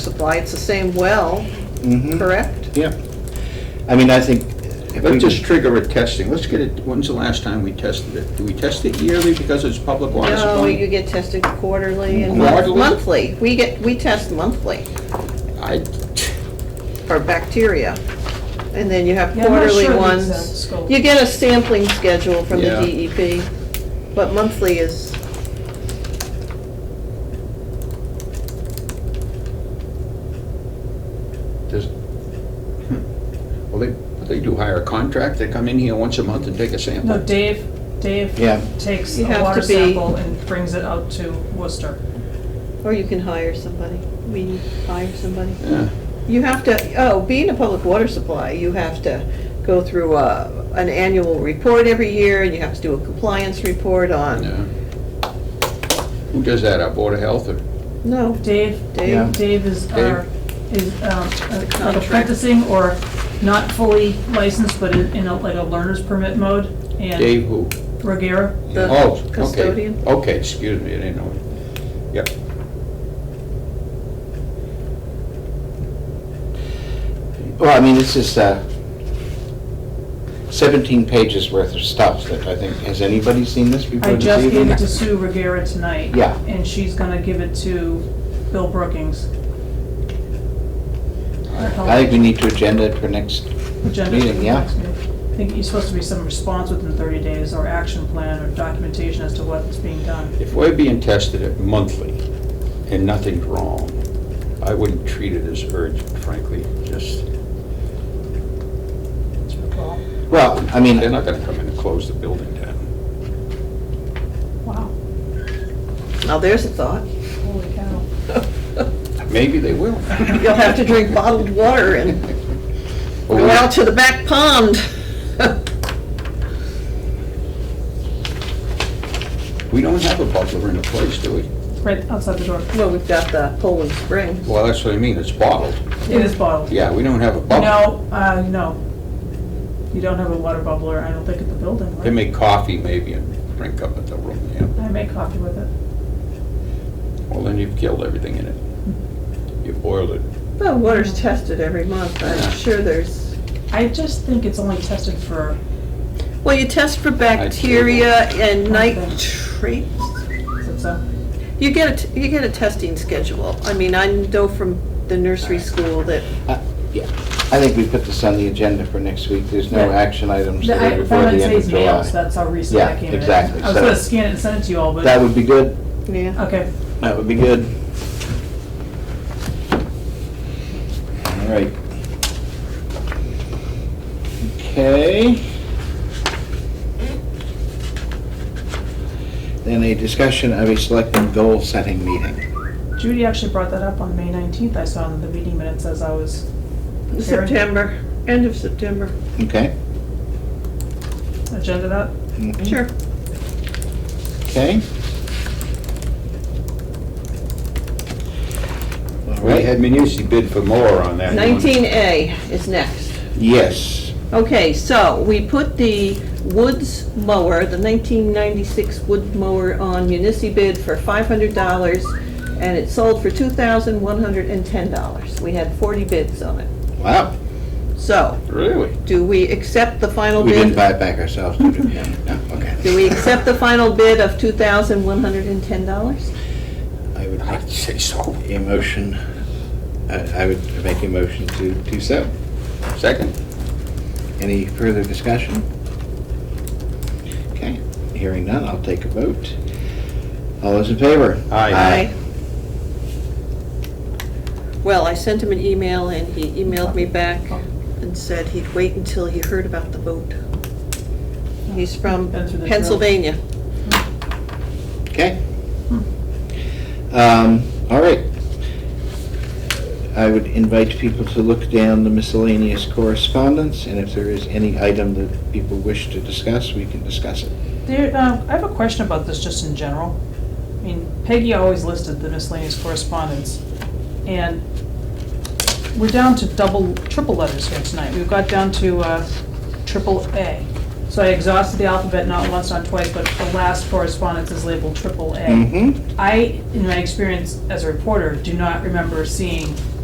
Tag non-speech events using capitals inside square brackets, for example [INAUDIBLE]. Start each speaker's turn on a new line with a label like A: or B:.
A: supply, it's the same well,
B: Mm-hmm.
C: Mhm.
A: correct?
C: Yeah. I mean, I think. if we
B: Let's just
C: could-
B: trigger a testing, let's get it, when's the last time we tested it? Do we test it yearly because it's public water
A: No, you
B: supply?
A: get tested quarterly and
B: Quarterly?
A: monthly. We get, we test monthly
B: I,
A: for bacteria. And then you have
D: Yeah, I'm not
A: quarterly
D: sure uh, the exact
A: ones.
D: scope.
A: You get a sampling schedule from the
B: Yeah.
A: DEP, but monthly is,
B: does, hmm. well, they, they do hire a contract, they come in here once a month and take a
D: No,
B: sample.
D: Dave, Dave
C: Yeah.
D: takes
A: You
D: a
A: have
D: water
A: to be-
D: sample and brings it out to Worcester.
A: or you can hire somebody. We hire somebody.
B: Yeah.
A: You have to, oh, being a public water supply, you have to go through a, an annual report every year, and you have to do a compliance report
B: yeah.
A: on,
B: Who does that, our Board of Health or?
A: no,
D: Dave,
A: Dave.
D: Dave is our, is um, a- like
A: contract.
D: apprenticing or not fully licensed, but in in a, like a learner's permit mode. And
B: Dave who?
D: Regera,
A: The
B: Oh, okay.
A: custodian.
B: Okay, excuse me, I didn't know. Yep.
C: Well, I mean, it's just uh, 17 pages worth of stuff that I think, has anybody seen this before
D: I
C: this
D: just gave
C: evening?
D: it to Sue Regera tonight.
C: Yeah.
D: And she's gonna give it to Bill Brookings.
C: I think we need to agenda it for next,
D: agenda.
C: Meeting,
D: for the
C: yeah.
D: next meeting. I think you're supposed to be some response within 30 days, or action plan, or documentation as to what's being done.
B: If we're being tested at monthly and nothing's wrong, I wouldn't treat it as urgent, frankly, just,
C: well, I mean,
B: they're not gonna come in and close the building down.
D: Wow,
A: now there's a thought.
D: holy cow.
B: Maybe they will.
A: You'll have to drink bottled water and go out to the back pond. [LAUGHS]
B: We don't have a butler in the place, do we?
D: Right outside the door.
A: Well, we've got the Poland Springs.
B: Well, that's what I mean, it's bottled.
D: It is bottled.
B: Yeah, we don't have a
C: Oh.
B: butler.
D: No, uh, no. You don't have a water bubbler, I don't think, at the building,
B: They
D: right?
B: make coffee maybe and drink up at the room, yeah.
D: I make coffee with it.
B: Well, then you've killed everything in it. You've boiled it.
A: The water's tested every month. I'm sure there's,
D: I just think it's only tested for,
A: well, you test for bacteria and nitrates.
D: is it so?
A: You get, a t- you get a testing schedule. I mean, I know from the nursery school that,
C: I think we put this on the agenda for next week. There's no
D: Yeah.
C: action items
D: I
C: there
D: found
C: before
D: it
C: the end of
D: today's mail,
C: July.
D: so that's how recent I
C: Yeah,
D: came in.
C: exactly,
D: I was
C: so-
D: gonna scan it and send it to you all,
C: That
D: but,
C: would be good,
A: yeah.
D: okay.
C: that would be good. All right. Okay. Then a discussion of a selecting goal-setting meeting.
D: Judy actually brought that up on May 19th, I saw in the meeting minutes as I was
A: September, end of September.
C: Okay?
D: agenda that.
C: Mhm.
A: Sure.
C: Okay. All
B: We
C: right,
B: had Minucci bid for more on that one.
A: 19A is next.
C: yes.
A: Okay, so we put the Woods mower, the 1996 Wood mower on municipi bid for $500, and it sold for $2,110. We had 40 bids on it.
C: Wow.
A: So,
B: Really? [LAUGHS]
A: do we accept the final
C: We didn't
A: bid?
C: buy it back ourselves, did
A: [LAUGHS]
C: we? No, no, okay.
A: Do we accept the final bid of $2,110?
C: I would make
B: I'd say so.
C: a motion, I I would make a motion to do so.
B: Second?
C: Any further discussion? Okay, hearing none, I'll take a vote. All those in favor?
B: Aye.
A: Well, I sent him an email, and he emailed me back and said he'd wait until he heard about the vote. He's from
D: Been through the drill.
A: Pennsylvania.
C: Okay. Um, All right. I would invite people to look down the miscellaneous correspondence, and if there is any item that people wish to discuss, we can discuss it.
D: There, um, I have a question about this just in general. I mean, Peggy always listed the miscellaneous correspondence, and we're down to double, triple letters here tonight. We've got down to uh, triple A. So I exhausted the alphabet not once, not twice, but the last correspondence is labeled triple A.
C: Mhm.
D: I, in my experience as a reporter, do not remember seeing